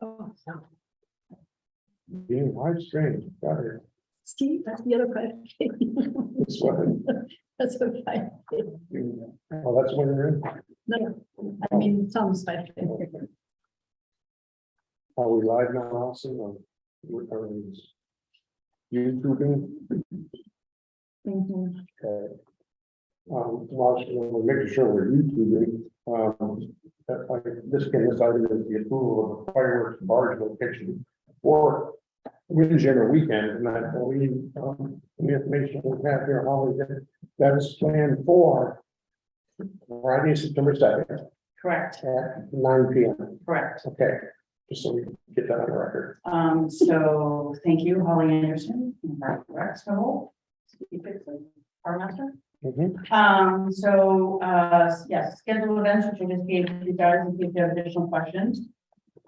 Oh, no. Being live streamed, better, Steve, that's the other question. this one, That's okay. you, oh, that's when you're in, No, I mean, Tom's my favorite. are we live now, Allison, or? what are we- YouTubing, Mm-hmm. Mhm. okay. Um, while we're making sure we're YouTubing, um, that I, this came as item is the approval of fireworks barge location. For wind general weekend, and I believe, um, the information we have here, Holly, that, that is planned for. Friday, September second, Correct, at nine P M. correct. Okay, just so we can get that on the record. Um, so thank you, Holly Anderson, and Mark Rexnell, Steve Bixley, our master. Mm-hmm. Um, so, uh, yes, scheduled events, which I just gave you guys, if you have additional questions.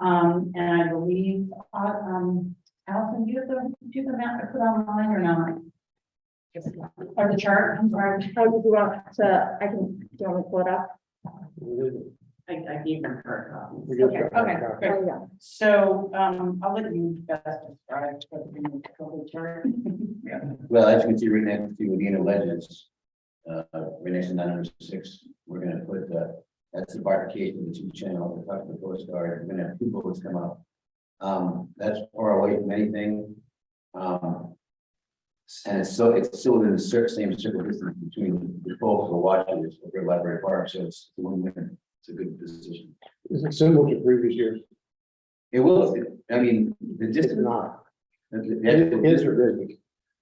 Um, and I believe, uh, um, Allison, do you have the, do you have the map I put online or not? Or the chart, I'm sorry. How do you want to, I can, do you want me to pull it up? We I, I gave them her copies. just- Okay, okay, good. Oh, yeah. So, um, I'll let you guys describe what the new COVID chart. Well, as you can see right next to the inner ledges, uh, right next to nine hundred six, we're gonna put, uh, that's the barricade of the two channel, the top of the coast guard, we're gonna have two boats come up. Um, that's far away from anything. Um. And it's so, it's still in the cer- same circle distance between the both of the watches over at Library Park, so it's one win, it's a good decision. Is it similar to previous years? It will, I mean, the It's distance. not. the- It is The or isn't.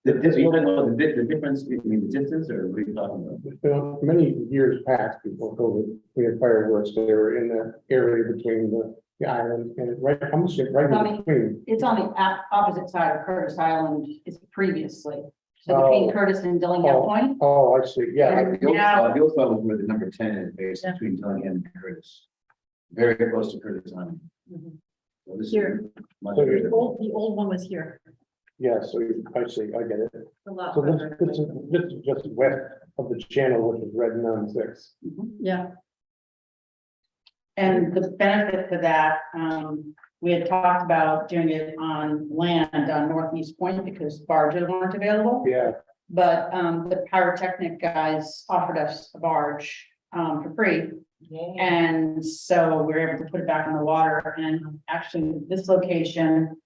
the- the- you know, the di- the difference between the distance or what are you talking about? It's been Many years past before COVID, we had fireworks that were in the area between the the island and right, I'm gonna say right in between. It's on the op- opposite side of Curtis Island, it's previously, so Oh. between Curtis and Dillingham Oh. Point. Oh, I see, yeah. The old spot, the old spot was where the number ten is based between Dillingham and Curtis. Very close to Curtis Island. Mm-hmm. Mhm. So this is Here. much So The you're- better. old, the old one was here. Yeah, so you- I see, I get it. A lot So this, further. this is, this is just west of the channel, which is red nine six. Yeah, And the benefit to that, um, we had talked about doing it on land on Northeast Point because barges weren't available. Yeah, But, um, the pyrotechnic guys offered us a barge, um, for free. And so we were able to put it back in the water and actually this location.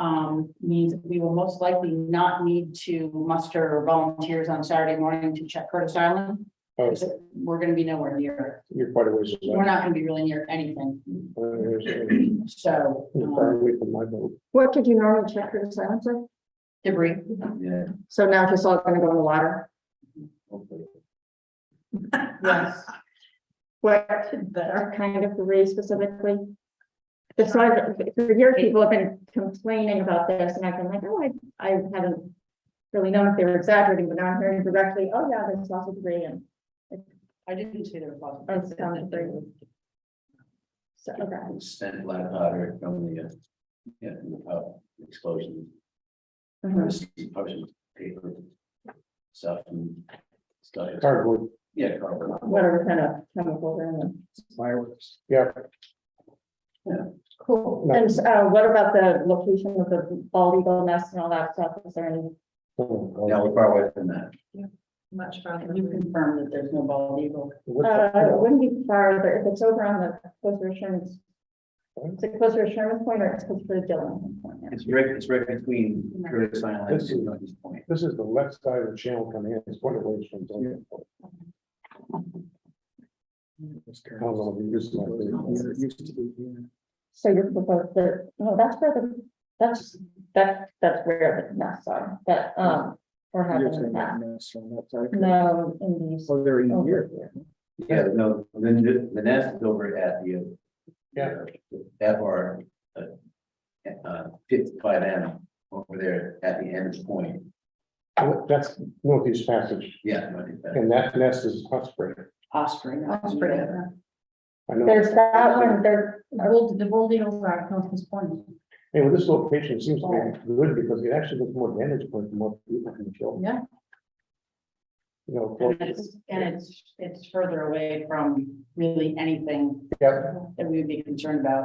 Um, means we will most likely not need to muster volunteers on Saturday morning to check Curtis Island. oh, Because we're gonna be nowhere near, you're quite a ways it. we're away. Oh, not gonna be really near anything, You're so, far um, away from my boat. What did you normally check for the silencer? debris. Yeah, So now it's just all gonna go in the water? hopefully. Yes. What what kind of debris specifically? The side, for years, people have been complaining about this and I've been like, oh, I, I haven't really known if they were exaggerating, but now I'm hearing directly, oh, yeah, there's lots of debris and I didn't say there was. it's down through. So, okay, Sent black powder from the, uh, yeah, from the pow- explosion. Mhm. Explosion paper. Stuff and stuff. Cardboard Yeah, cardboard. whatever kind of chemical they're in. fireworks, yeah. Cool. No. And uh, what about the location of the bald eagle nest and all that stuff? Is there any? Oh, God. Now we're far away from that. much Can farther. You confirm that there's no bald eagle. What's Uh, that it called? wouldn't be farther, if it's over on the closer to Sherman's. Is it closer to Sherman's Point or it's closer to Dillon? It's right, it's right between Curtis Island This is- and Northeast Point. This is the left side of the channel coming in, it's quite a ways from. Dunkin' Donuts. I don't know if you used to like this. So you're proposing, the- no, that's where the, that's, that, that's where the nests are, that, um, or You're having saying that. that nest on that side. No, in these. Oh, they're in over here. here. Yeah, no, the, the- the nest is over at the. uh, Yeah. At our, uh, uh, fifty-five M over there at the end point, That's northeast passage, yeah. no, I think that- and that nest is Osprey. Osprey. Osprey. I know, There's that one, there, Old, the old eagles are at Northeast Point. and with this location it seems to be good because it actually looks more vantage point, from more people can show. Yeah. You know, close- And it's, and it's, it's further away from really anything yeah. that we would be concerned about.